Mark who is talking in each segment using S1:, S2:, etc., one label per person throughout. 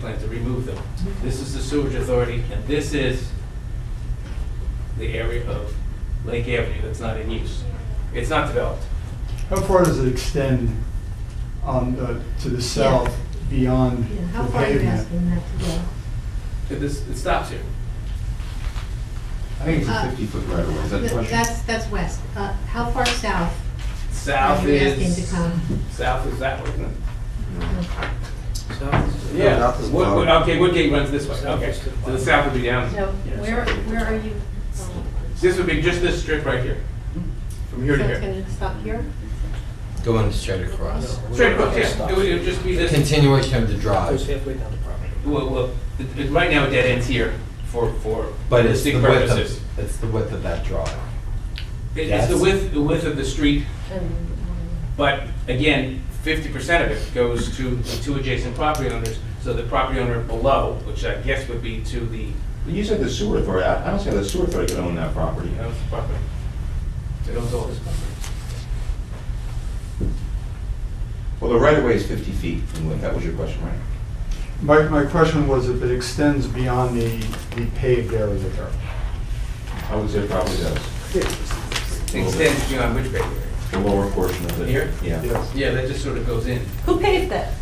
S1: plant to remove them. This is the sewage authority, and this is the area of Lake Avenue that's not in use. It's not developed.
S2: How far does it extend on the, to the south beyond
S3: Yeah,
S2: the
S3: how far are you
S2: pavement?
S3: asking that to go?
S1: It this- it stops here.
S4: I think it's a
S3: Uh,
S4: 50-foot right-of-way, is that the
S3: Th-
S4: question?
S3: That's, that's west. Uh, How far south are
S1: South
S3: you asking
S1: is,
S3: to come?
S1: south is that way, isn't it?
S5: South is-
S1: Yeah,
S4: south is
S1: Wood- Wood-
S4: bottom.
S1: okay, Woodgate runs this way,
S5: South
S1: okay.
S5: is to the
S1: So the
S5: bottom.
S1: south would be
S3: So
S1: down.
S3: where, where are you?
S1: This would be just this strip right here, from here to
S3: So
S1: here.
S3: it's gonna stop here?
S6: Going straight across.
S1: Straight across, yeah, it would it would just be this.
S6: Continuation of the
S5: Goes
S6: drive,
S5: halfway down the property.
S1: Well, well, it- it- right now it dead ends here for, for
S6: but it's the
S1: distinct
S6: width
S1: purposes.
S6: of, it's the width of that drive.
S1: It- It's the
S6: Yes.
S1: width, the width of the street, but again, fifty percent of it goes to the two adjacent property owners. So the property owner below, which I guess would be to the,
S4: But You said the sewer authority, I I don't see how the sewer authority could own that property.
S1: you know, property. They don't own this property.
S4: Well, the right-of-way is 50 feet, from Lake. that was your question, right?
S2: My, my question was if it extends beyond the, the paved area there.
S4: I would say it probably does,
S1: It Extends beyond which bay area?
S4: the lower portion of it.
S1: Here?
S4: Yeah.
S2: Yes.
S1: Yeah, that just sort of goes in.
S7: Who paved that?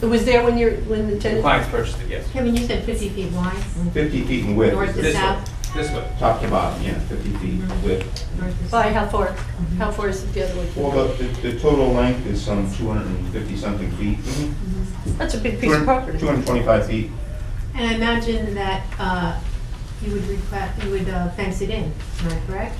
S7: It was there when you're, when the
S1: The
S7: tenant?
S1: clients purchased it, yes.
S3: Kevin, you said 50 feet wide,
S4: 50 feet in width,
S3: North
S4: is
S3: to
S4: the-
S1: This way,
S3: south?
S1: this way.
S4: top to bottom, yeah, 50 feet width.
S3: north to south?
S7: By how far? How far is it the other way?
S4: Well, the, the the total length is some 250-something feet.
S7: Mm-hmm. That's a big piece of property.
S4: 225 feet.
S3: And I imagine that uh, you would request, you would uh, fence it in, am I correct?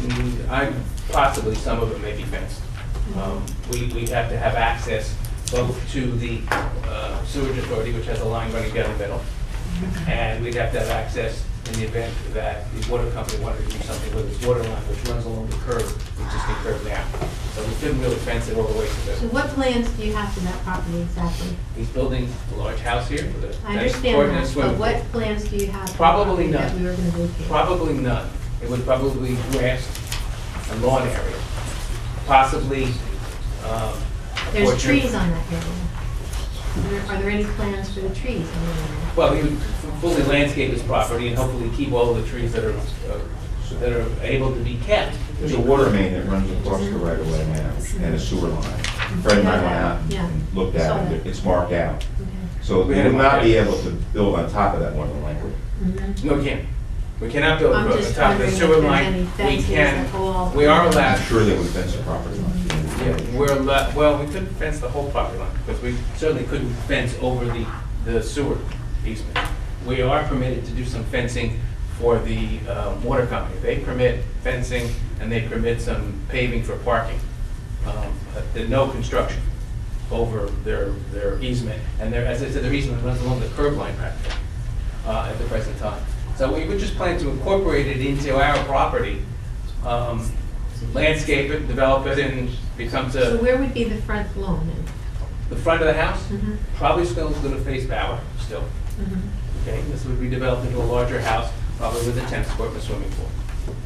S1: Mm, I, possibly, some of it may be fenced.
S3: Mm-hmm.
S1: Um, We, we have to have access both to the uh, sewage authority, which has a line running down the middle,
S3: Mm-hmm.
S1: and we'd have to have access in the event that the water company wanted to do something with its water line, which runs along the curb, the existing curb now. So we couldn't really fence it all the way
S3: So
S1: to the,
S3: what plans do you have for that property exactly?
S1: he's building a large house here with a
S3: I
S1: tennis court
S3: understand
S1: and a
S3: that,
S1: swimming
S3: but
S1: pool.
S3: what plans do you have? for the
S1: Probably
S3: property That
S1: none.
S3: we were gonna vacate?
S1: Probably none. It would probably grass and lawn area, possibly. um, a
S3: There's
S1: portion of-
S3: trees on that area. Are there- Are there any plans for the trees on the area?
S1: Well, he would fully landscape his property and hopefully keep all the trees that are, uh, that are able to be kept.
S4: There's a water main that runs across the right-of-way now, and a sewer line. Fred and I went out
S3: Yeah.
S4: and looked at it, it's marked out.
S3: Okay.
S4: So we would not be able to build on top of that one of the language.
S3: Mhm.
S1: No, we can't. We cannot build a
S3: I'm
S1: road on
S3: just
S1: top of the
S3: wondering if
S1: sewer
S3: there's
S1: line.
S3: any
S1: We
S3: fences at all.
S1: can, we are
S4: I'm
S1: allowed,
S4: sure they would fence the property line.
S1: yeah, we're allowed, well, we couldn't fence the whole property line because we certainly couldn't fence over the, the sewer easement. We are permitted to do some fencing for the um, water company. They permit fencing and they permit some paving for parking. Um, but the- No construction. over their, their easement, and their, as I said, their easement runs along the curb line practically, uh, at the present time. So we would just plan to incorporate it into our property, um, landscape it, develop it, and becomes
S3: So
S1: a,
S3: where would be the front lawn then?
S1: the front of the house,
S3: Mhm.
S1: probably still is gonna face Bauer, still,
S3: Mhm.
S1: okay? This would be developed into a larger house, probably with a tennis court and a swimming pool.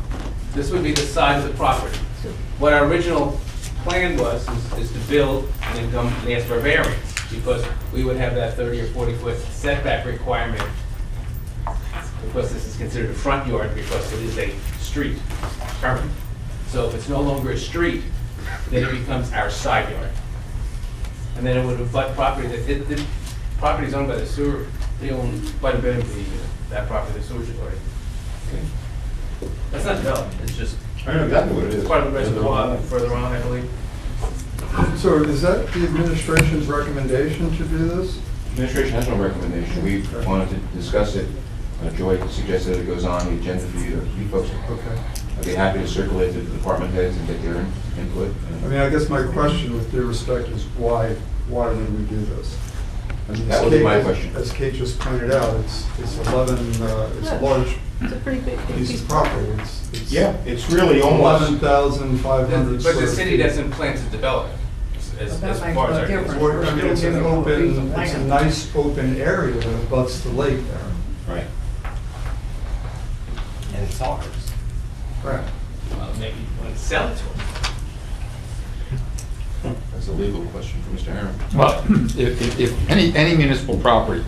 S1: This would be the side of the property.
S3: So-
S1: What our original plan was, is- is to build and then come and ask for variance, because we would have that 30 or 40-foot setback requirement, because this is considered a front yard, because it is a street currently. So if it's no longer a street, then it becomes our side yard. And then it would affect property, that, it- the property is owned by the sewer, they own quite a bit of the, uh, that property, the sewer authority. That's not development, it's just
S4: I know exactly what it is.
S1: it's part of the reservoir further on, I believe.
S2: So is that the administration's recommendation to do this?
S4: Administration has no recommendation. We wanted to discuss it. Uh, Joy suggested that it goes on the agenda for you, to- you folks.
S2: Okay.
S4: I'd be happy to circulate to the department heads and get their in- input.
S2: I mean, I guess my question with due respect is why, why did we do this? I mean,
S4: That
S2: as
S4: would be
S2: Kate-
S4: my question.
S2: As Kate just pointed out, it's, it's 11, uh, it's a large
S7: It's a pretty big big
S2: piece
S7: piece
S2: of
S7: of
S2: property. It's- it's
S4: Yeah, it's really
S2: Eleven
S4: almost,
S2: thousand five
S1: But
S2: hundred square.
S1: the city
S2: feet.
S1: doesn't plan to develop it, as, as far as I
S2: It's
S1: can.
S2: wor- I mean, it's an open, it's a nice open area that abuts the lake there.
S4: right.
S6: And it's ours.
S2: Right.
S1: Well, Maybe you want to sell it to them.
S8: It's a legal question for Mr. Aaron.
S4: Well, if, if- if any, any municipal property